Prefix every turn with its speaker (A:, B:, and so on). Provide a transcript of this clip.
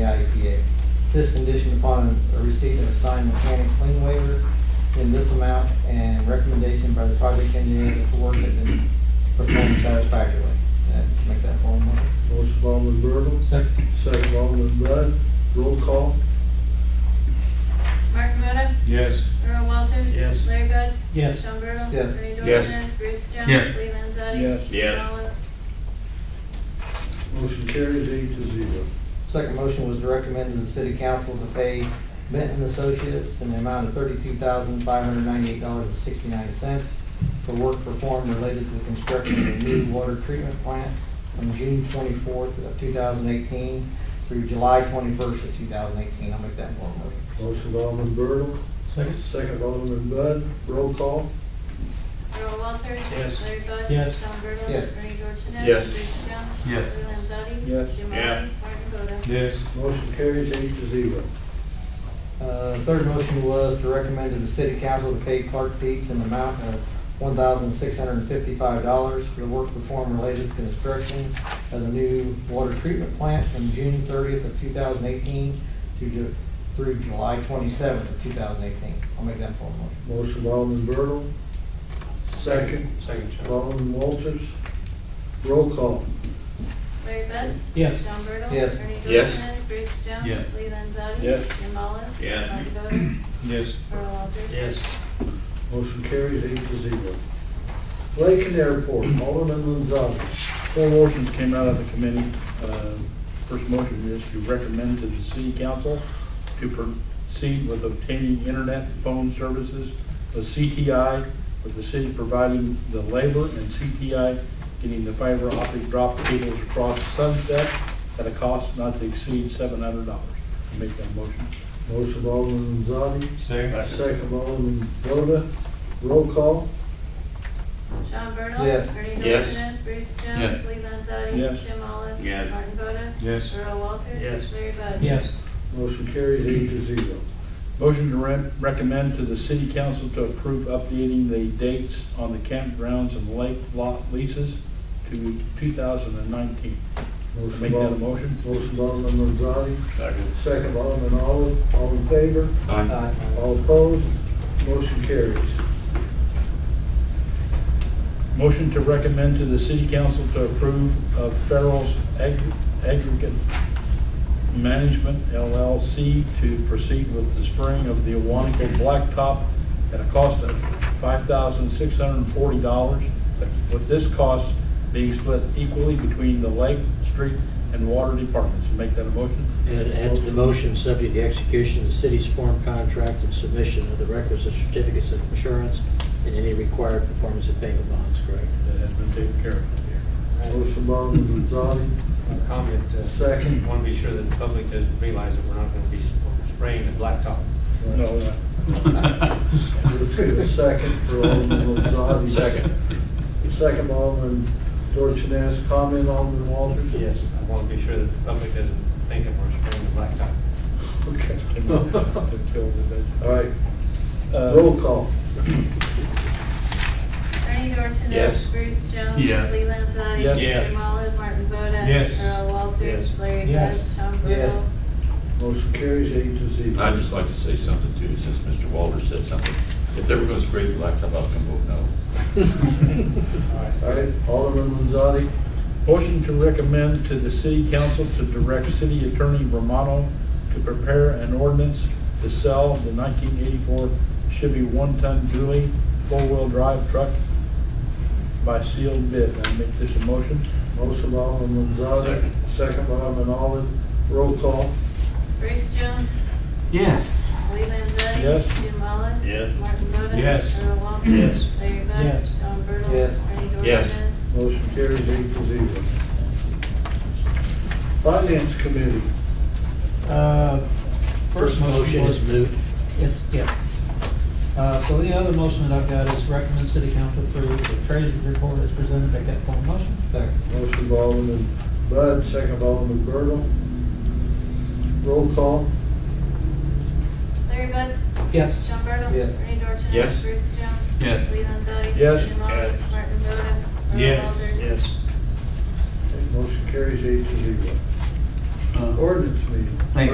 A: IEPA. E This conditioned upon a receipt of a signed mechanic clean waiver in this amount and recommendation by the project engineer that the work had been performed satisfactorily. Uh, Make that formal motion.
B: Motion by Alderman Bertle,
C: Second.
B: second by Alderman Bud, roll call.
D: Mark Mota,
E: Yes.
D: Earl Walters.
E: Yes.
D: Larry Bud.
C: Yes.
D: Sean Bertle.
A: Yes.
D: Bernie
F: Yes.
D: Dorchenez. Bruce Jones.
E: Yes.
D: Lee Landzadi.
B: Yes.
F: Yes.
D: Ron Oliver.
B: Motion carries eight to zero.
A: Second motion was to recommend to the city council to pay Benton Associates in the amount of thirty-two thousand, five hundred ninety-eight dollars and sixty-nine cents for work performed related to the construction of a new water treatment plant from June twenty-fourth of two thousand eighteen through July twenty-first of two thousand eighteen. I'll make that one motion.
B: Motion by Alderman Bertle,
C: Second.
B: second by Alderman Bud, roll call.
D: Earl Walters.
E: Yes.
D: Larry Bud.
C: Yes.
D: Sean Bertle.
A: Yes.
D: Bernie Dorchenez.
F: Yes.
D: Bruce Jones.
E: Yes.
D: Lee Landzadi.
B: Yes.
D: Jim
F: Yeah.
D: Oliver. Martin Boda.
E: Yes.
B: Motion carries eight to zero.
A: Uh, Third motion was to recommend to the city council to pay Clark Dietz an amount of one thousand six hundred and fifty-five dollars for the work performed related to construction of the new water treatment plant from June thirtieth of two thousand eighteen to, Ju- through July twenty-seventh of two thousand eighteen. I'll make that formal motion.
B: Motion by Alderman Bertle, second
E: Second.
B: by Alderman Walters, roll call.
D: Larry Bud.
C: Yes.
D: Sean Bertle.
A: Yes.
D: Bernie
F: Yes.
D: Dorchenez. Bruce Jones.
E: Yes.
D: Lee Landzadi.
B: Yes.
D: Jim Oliver.
F: Yes.
D: Martin Boda.
E: Yes.
D: Earl Walters.
B: Motion carries eight to zero. Lake and Airport, Alderman Gonzalez.
G: Four motions came out of the committee. Uh, First motion is to recommend to the city council to proceed with obtaining internet phone services with CTI, with the city providing the labor and CTI getting the fiber optic drop cables across the sunset at a cost not to exceed seven hundred dollars. Make that motion.
B: Motion by Alderman Gonzalez,
E: Second.
B: second by Alderman Boda, roll call.
D: Sean Bertle.
A: Yes.
D: Bernie
F: Yes.
D: Dorchenez. Bruce Jones.
E: Yes.
D: Lee Landzadi.
G: Yes.
D: Jim Oliver.
F: Yes.
D: Martin Boda.
E: Yes.
D: Earl Walters.
E: Yes.
D: Larry Bud.
C: Yes.
B: Motion carries eight to zero.
G: Motion to re- recommend to the city council to approve updating the dates on the campgrounds and lake lot leases to 2019.
B: Motion
G: Make that a
B: by,
G: motion.
B: motion by Alderman Gonzalez,
F: Second.
B: second by Alderman Olive, all in favor,
A: Aye.
B: all opposed, motion carries.
G: Motion to recommend to the city council to approve of Farrell's Ag- Aggregate Management LLC to proceed with the spring of the Awanico Blacktop at a cost of $5,640, with this cost being split equally between the Lake, Street, and Water Departments. Make that a motion?
C: And add to the motion, subject to the execution of the city's form contract and submission of the requisite certificates of insurance and any required performance and payment bonds, correct?
G: That has been taken care of.
B: Motion by Alderman Gonzalez,
H: a comment. uh,
B: Second.
H: Want to be sure that the public doesn't realize that we're not going to be spraying the blacktop.
G: No, uh,
B: let's get a second for Alderman Gonzalez.
F: Second.
B: Second by Alderman Dorchenaz, comment Alderman Walters?
H: Yes, I want to be sure that the public doesn't think that we're spraying the blacktop.
B: Okay.
G: came out to kill the veg-
B: All right,
G: Uh,
B: roll call.
D: Bernie Dorchenez.
F: Yes.
D: Bruce Jones.
E: Yes.
D: Lee Landzadi.
G: Yes.
F: Yeah.
D: Jim Olive, Martin Boda.
E: Yes.
D: Earl Walters.
H: Yes.
D: Larry
C: Yes.
D: Bud. Sean
A: Yes.
D: Bertle.
B: Motion carries eight to zero.
F: I'd just like to say something too, since Mr. Walter said something. If they were gonna spray the blacktop, I'll come vote no.
B: All right, Alderman Gonzalez,
G: Motion to recommend to the city council to direct city attorney Romano to prepare an ordinance to sell the 1984 Chevy one-ton dually four-wheel drive truck by sealed bid. I make this a motion.
B: motion by Alderman Gonzalez, second by Alderman Olive, roll call.
D: Bruce Jones.
E: Yes.
D: Lee Landzadi.
G: Yes.
D: Jim Olive.
F: Yes.
D: Martin Boda.
E: Yes.
D: Earl Walters.
F: Yes.
D: Larry Bud.
C: Yes.
D: Sean Bertle.
A: Yes.
D: Bernie
F: Yes.
D: Dorchenez.
B: Motion carries eight to zero. Finance Committee,
C: Uh, First motion
I: was-
C: is moot.
I: It's, yeah. Uh, so the other motion that I've got is recommend city council approve the treasurer's report as presented, make that formal motion.
A: Second.
B: motion by Alderman Bud, second by Alderman Bertle. Roll call,
D: Larry Bud.
I: Yes.
D: Sean Bertle.
A: Yes.
D: Bernie Dorchenez.
F: Yes.
D: Bruce Jones.
E: Yes.
D: Lee Landzadi.
G: Yes.
D: Jim Olive.
F: Yes.
D: Martin Boda. Earl Walters.
E: Yes.
B: motion carries eight to zero.
J: ordinance meeting.
C: Uh,
B: Thank you.